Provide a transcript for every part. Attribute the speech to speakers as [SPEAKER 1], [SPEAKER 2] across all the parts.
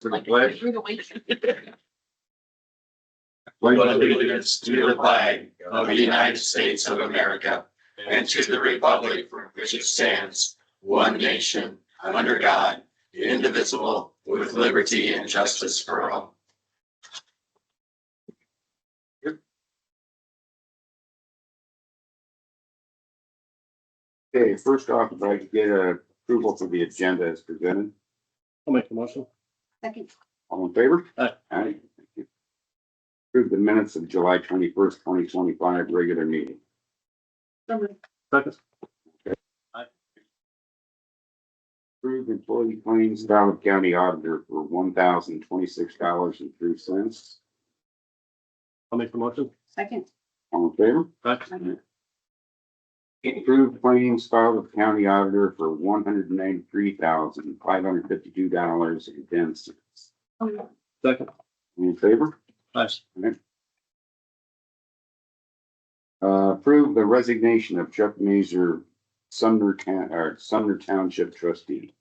[SPEAKER 1] To the
[SPEAKER 2] Like,
[SPEAKER 1] pledge.
[SPEAKER 2] through the week.
[SPEAKER 1] Pledge
[SPEAKER 3] pledge allegiance to the flag of the United States of America and to the republic for which it stands, one nation, under God, indivisible, with liberty and justice for all.
[SPEAKER 1] Okay, first off, if I could get a approval for the agenda as presented,
[SPEAKER 4] I'll make the motion.
[SPEAKER 2] Second,
[SPEAKER 1] all in favor?
[SPEAKER 4] Aye.
[SPEAKER 1] Aye. Thank you. Approve the minutes of July twenty-first, twenty twenty-five, regular meeting.
[SPEAKER 2] so moved.
[SPEAKER 4] Second.
[SPEAKER 1] Approve employee claims valid county auditor for one thousand twenty-six dollars and three cents,
[SPEAKER 4] I'll make the motion.
[SPEAKER 2] second,
[SPEAKER 1] all in favor?
[SPEAKER 4] Aye.
[SPEAKER 1] Approved claims filed with county auditor for one hundred and ninety-three thousand, five hundred fifty-two dollars and ten cents.
[SPEAKER 2] so moved.
[SPEAKER 4] Second.
[SPEAKER 1] In favor?
[SPEAKER 4] Aye.
[SPEAKER 1] Uh, approve the resignation of Chuck Mazer, Sumner Town, or Sumner Township trustee.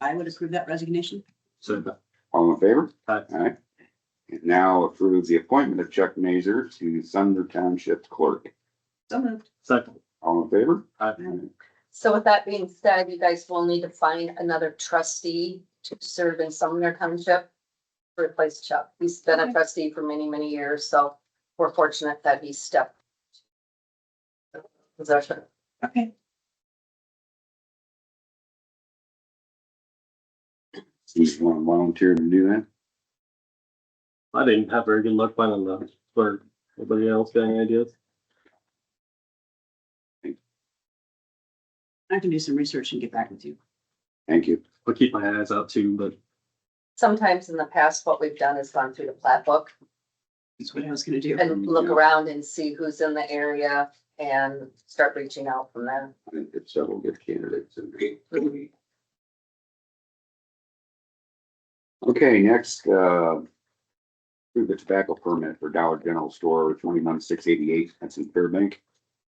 [SPEAKER 2] I would approve that resignation.
[SPEAKER 4] Second.
[SPEAKER 1] All in favor?
[SPEAKER 4] Aye.
[SPEAKER 1] Aye. And now approve the appointment of Chuck Mazer to Sumner Township clerk.
[SPEAKER 2] So moved.
[SPEAKER 4] Second.
[SPEAKER 1] All in favor?
[SPEAKER 4] Aye.
[SPEAKER 5] So with that being said, you guys will need to find another trustee to serve in Sumner Township. to Replace Chuck. He's been
[SPEAKER 2] Okay.
[SPEAKER 5] a trustee for many, many years, so we're fortunate that he stepped. Possession.
[SPEAKER 2] Okay.
[SPEAKER 1] So you want to volunteer to do that?
[SPEAKER 4] I didn't have very good luck finding the clerk. Anybody else got any ideas?
[SPEAKER 2] I can do some research and get back with you.
[SPEAKER 1] Thank you.
[SPEAKER 4] I'll keep my eyes out too, but
[SPEAKER 5] Sometimes in the past, what we've done is gone through the plat book
[SPEAKER 2] That's what I was gonna do.
[SPEAKER 5] and look around and see who's in the area and start reaching out from there.
[SPEAKER 1] I think there's several good candidates. in there. Okay, next, uh, approve the tobacco permit for Dollar General Store twenty-one six eighty-eight, that's in Fairbank.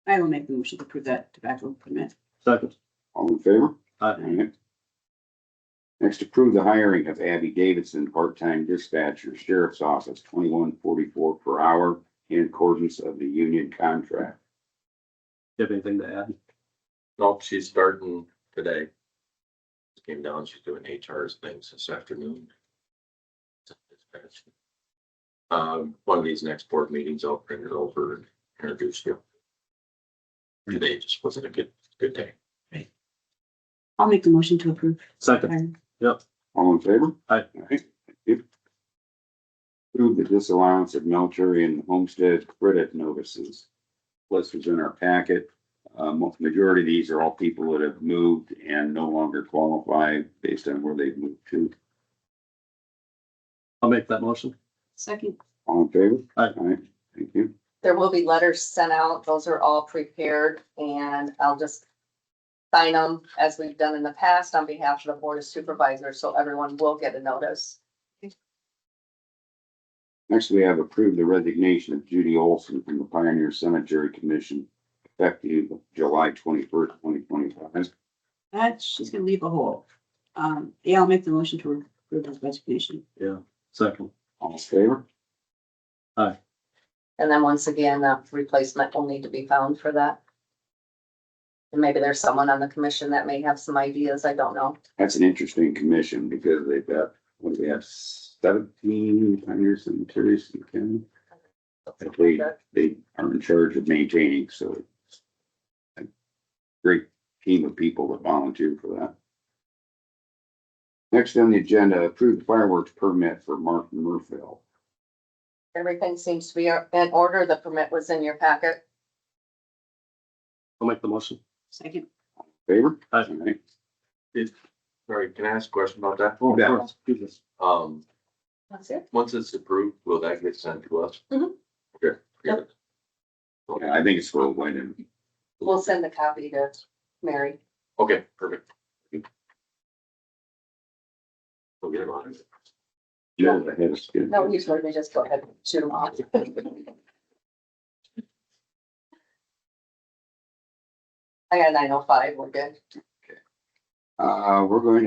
[SPEAKER 2] I will make the motion to approve that tobacco permit.
[SPEAKER 4] second.
[SPEAKER 1] All in favor?
[SPEAKER 4] Aye.
[SPEAKER 1] Alright. Next, approve the hiring of Abby Davidson, part-time dispatcher, sheriff's office, twenty-one forty-four per hour in accordance of the union contract.
[SPEAKER 4] You have anything to add?
[SPEAKER 3] Nope, she's starting today. Came down, she's doing HR's things this afternoon. Um, one of these next board meetings, I'll print it over and introduce you. Today just wasn't a good, good day.
[SPEAKER 2] I'll make the motion to approve.
[SPEAKER 4] Second.
[SPEAKER 1] All in favor?
[SPEAKER 4] Aye.
[SPEAKER 1] Alright, thank you. Approve the disallowance of military and homestead credit notices. List was in our packet. Uh, mo- majority of these are all people that have moved and no longer qualify based on where they've moved to.
[SPEAKER 4] I'll make that motion.
[SPEAKER 2] Second,
[SPEAKER 1] All in favor?
[SPEAKER 4] Aye.
[SPEAKER 1] Alright, thank you.
[SPEAKER 5] There will be letters sent out. Those are all prepared and I'll just sign them as we've done in the past on behalf of the Board of Supervisors, so everyone will get a notice.
[SPEAKER 1] Next, we have approved the resignation of Judy Olson from the Pioneer Cemetery Commission effective July twenty-first, twenty twenty-five.
[SPEAKER 2] that, she's gonna leave a hole. Um, yeah, I'll make the motion to approve this resignation.
[SPEAKER 4] Second.
[SPEAKER 1] All in favor?
[SPEAKER 5] And then once again, a replacement will need to be found for that. And maybe there's someone on the commission that may have some ideas. I don't know.
[SPEAKER 1] That's an interesting commission because they've got, what do we have, seventeen Pioneer Cemeteries in the county? That they, they are in charge of maintaining, so. it's a Great team of people that volunteer for that. Next on the agenda, approved fireworks permit for Mark Murphy.
[SPEAKER 5] Everything seems to be in order. The permit was in your packet.
[SPEAKER 4] I'll make the motion.
[SPEAKER 2] Second,
[SPEAKER 1] Favor?
[SPEAKER 4] Aye.
[SPEAKER 1] All right.
[SPEAKER 3] Sorry, can I ask a question about that?
[SPEAKER 4] Oh,
[SPEAKER 1] Yeah.
[SPEAKER 4] of course. Goodness.
[SPEAKER 3] Um,
[SPEAKER 5] That's it.
[SPEAKER 3] once it's approved, will that get sent to us?
[SPEAKER 5] Mhm.
[SPEAKER 3] Okay.
[SPEAKER 5] Yep.
[SPEAKER 1] Yeah, I think it's for Wyndham.
[SPEAKER 5] We'll send the copy to Mary.
[SPEAKER 3] Okay, perfect. We'll get it on.
[SPEAKER 1] Yeah, I had a skin.
[SPEAKER 5] No, usually they just go ahead and shoot them off. I got nine oh five, we're good.
[SPEAKER 1] Uh, we're going to